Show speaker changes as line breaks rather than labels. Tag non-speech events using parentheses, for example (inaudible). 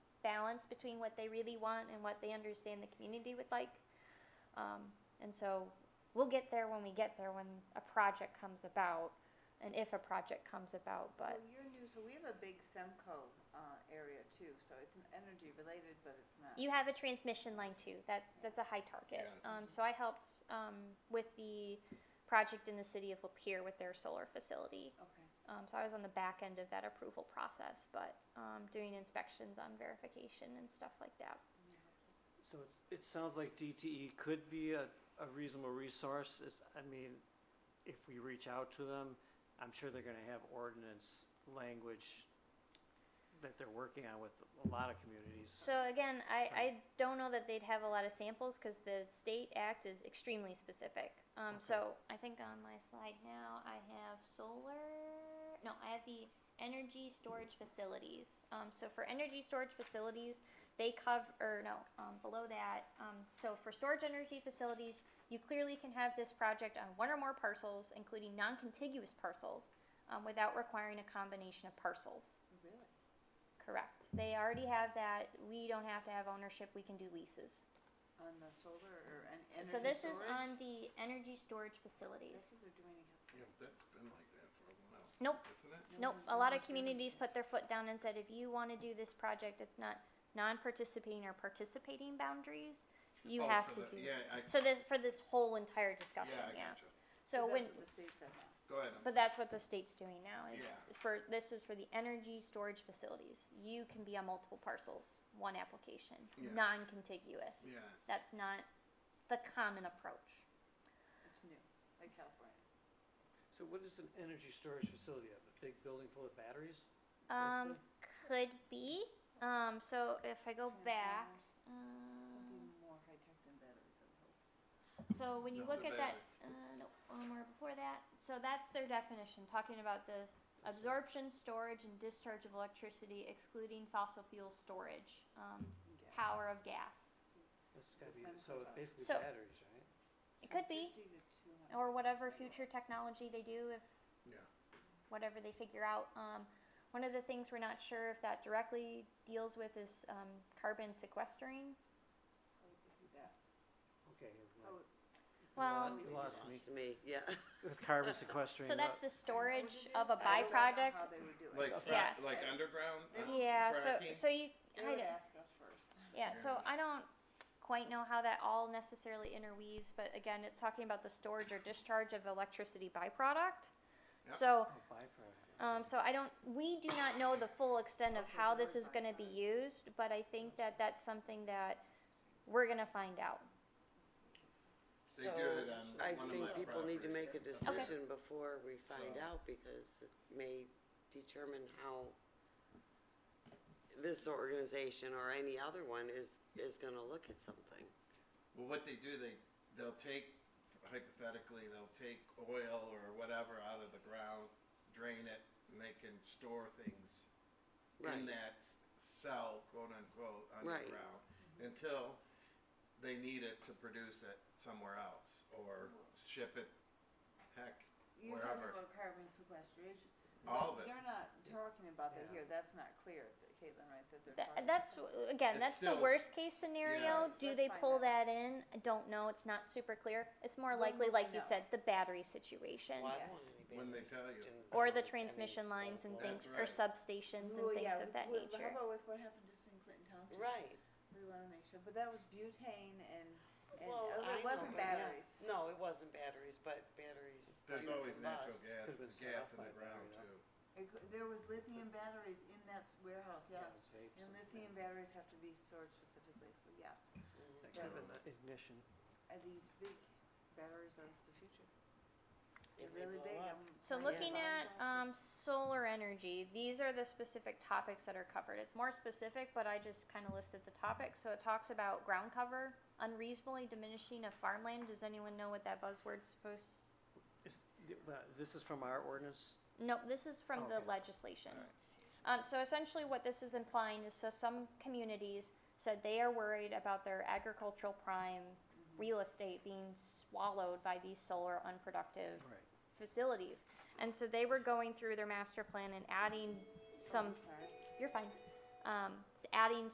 balance between what they really want and what they understand the community would like. Um, and so we'll get there when we get there, when a project comes about, and if a project comes about, but.
Well, you're new, so we have a big Semco, uh, area too, so it's an energy related, but it's not.
You have a transmission line too. That's that's a high target.
Yes.
Um, so I helped um, with the project in the city of Lapeer with their solar facility.
Okay, oh,
Um, so I was on the back end of that approval process, but um, doing inspections on verification and stuff like that.
So it's, it sounds like DTE could be a, a reasonable resource, is, I mean, if we reach out to them, I'm sure they're gonna have ordinance language that they're working on with a lot of communities.
So again, I, I don't know that they'd have a lot of samples because the state act is extremely specific. Um,
Okay.
So I think on my slide now I have solar. No, I have the energy storage facilities. Um, so for energy storage facilities, they cover or no um, below that. Um, so for storage energy facilities, you clearly can have this project on one or more parcels, including non-contiguous parcels, um, without requiring a combination of parcels.
really?
Correct. They already have that. We don't have to have ownership. We can do leases.
On the solar or en- energy
so this is
storage?
on the energy storage facilities.
This is they're doing it.
Yeah, but that's been like that for a while.
Nope.
Isn't it?
Nope.
No,
A lot of
no,
communities put their foot down and said, if you want to do this project, it's not non-participating or participating boundaries. You
Oh,
have
for
to do.
the- Yeah, I,
So this for this whole entire discussion.
yeah, I
yeah.
gotcha.
So
that's
when
what the state said now.
Go ahead. I'm
But that's what the state's doing now. Is
Yeah.
for this is for the energy storage facilities. You can be on multiple parcels, one application,
Yeah.
non-contiguous.
Yeah,
That's not the common approach.
It's new, like California.
So what is an energy storage facility, a big building full of batteries?
Um,
basically?
could be. Um, so if I go back, um,
Something more high tech than batteries, I would hope.
so when you
No,
look
the
at that, uh, no, one more before that. So that's their definition, talking about the absorption, storage, and discharge of electricity, excluding fossil fuel storage, um,
Yes.
power of gas.
It's gotta
It
be,
sounds
so
like that.
basically
So-
batteries, right?
It could be,
150 to 200
or whatever
megawatt.
future technology they do, if
yeah.
whatever they figure out. Um, one of the things we're not sure if that directly deals with is um, carbon sequestering.
How would they do that?
Okay.
How
well,
would-
Well-
You lost
(laughs)
me,
me, yeah.
with carbon sequestering.
So that's
uh,
the
I
storage
would
of a
do- I don't know How
byproduct.
they would do it.
Like, fra-
Yeah.
like underground? uh,
Yeah, so,
fracking?
so you,
They
I
would
don't,
ask us first.
yeah, so I don't quite know how that all necessarily interweaves, but again, it's talking about the storage or discharge of electricity byproduct.
Yep.
So,
oh, byproduct.
um, so I don't, we do not know the full extent of
Okay,
how
the
this
word
is gonna be used, but I think that that's something that we're gonna find out.
They
So
do it on
(laughs) I
one of
think
my
people need to make a
properties.
decision before we find
So-
out because it may determine how this organization or any other one is, is gonna look at something.
Well, what they do, they, they'll take, hypothetically, they'll take oil or whatever out of the ground, drain it, and they can store things in
Right.
that s- cell, quote unquote,
Right.
underground, until they need it to produce it somewhere else or ship it, heck,
You're talking
Wherever.
about carbon sequestration.
all of
But
it.
They're not talking about that
Yeah.
here, that's not clear, th- Caitlin, right, that they're
That,
talking.
that's again,
It's
that's the
still-
worst case scenario.
Yes.
Do
Let's
they
find
pull
out.
that in? I don't know. It's not super clear. It's more
When
likely,
will
like
we
you
know?
said, the battery situation
Well, I
Yeah.
don't want any
When they
batteries
tell you.
in-
or the
I mean,
transmission lines and
well,
things or
right.
substations and
Well,
things
yeah,
of
with-
that
with-
nature.
How about with what happened just in Clinton Township?
Right,
We wanna make sure, but that was butane and, and,
well,
oh,
I know,
it wasn't
but yeah.
batteries.
No, it wasn't batteries, but batteries
There's
do
always natural
combust.
gas,
Could've been set
gas
off
in
by
the ground
battery,
too.
It cou- There was lithium batteries in that s- warehouse,
Yeah,
yes.
it's vapes
And
and-
lithium batteries have to be stored specifically, so yes.
That could have been the ignition.
And these big batteries are the future. They're
And they
really
blow
big.
up.
I'm-
So
I'm
looking
surprised.
at um, solar energy, these are the specific topics that are covered. It's more specific, but I just kind of listed the topics. So it talks about ground cover, unreasonably diminishing of farmland. Does anyone know what that buzzword's supposed?
Is, but this is from our ordinance?
No, this is from the
Okay.
legislation. Um, so essentially, what this is implying is so some communities said they are worried about their agricultural prime real estate being swallowed by these solar unproductive
Right.
facilities. And so they were going through their master plan and adding some,
Sorry.
you're fine, um, adding